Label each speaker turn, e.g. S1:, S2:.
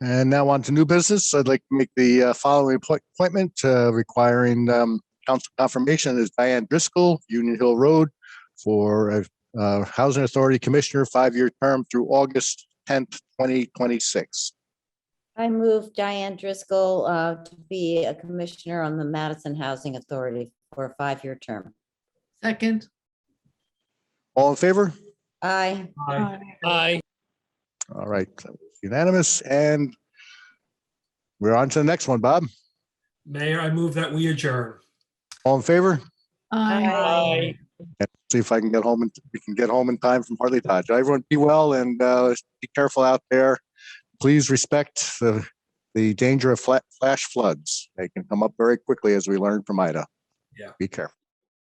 S1: And now on to new business. I'd like to make the uh, following appoint- appointment uh, requiring um, council confirmation is Diane Driscoll, Union Hill Road, for a uh, Housing Authority Commissioner, five-year term through August tenth, twenty twenty-six.
S2: I move Diane Driscoll uh, to be a commissioner on the Madison Housing Authority for a five-year term.
S3: Second.
S1: All in favor?
S2: Aye.
S4: Aye.
S1: All right, unanimous, and we're on to the next one, Bob.
S4: Mayor, I move that we adjourn.
S1: All in favor?
S3: Aye.
S2: Aye.
S1: See if I can get home and we can get home in time from Hartley Dodge. Everyone be well and uh, be careful out there. Please respect the, the danger of fla- flash floods. They can come up very quickly as we learned from Ida.
S4: Yeah.
S1: Be careful.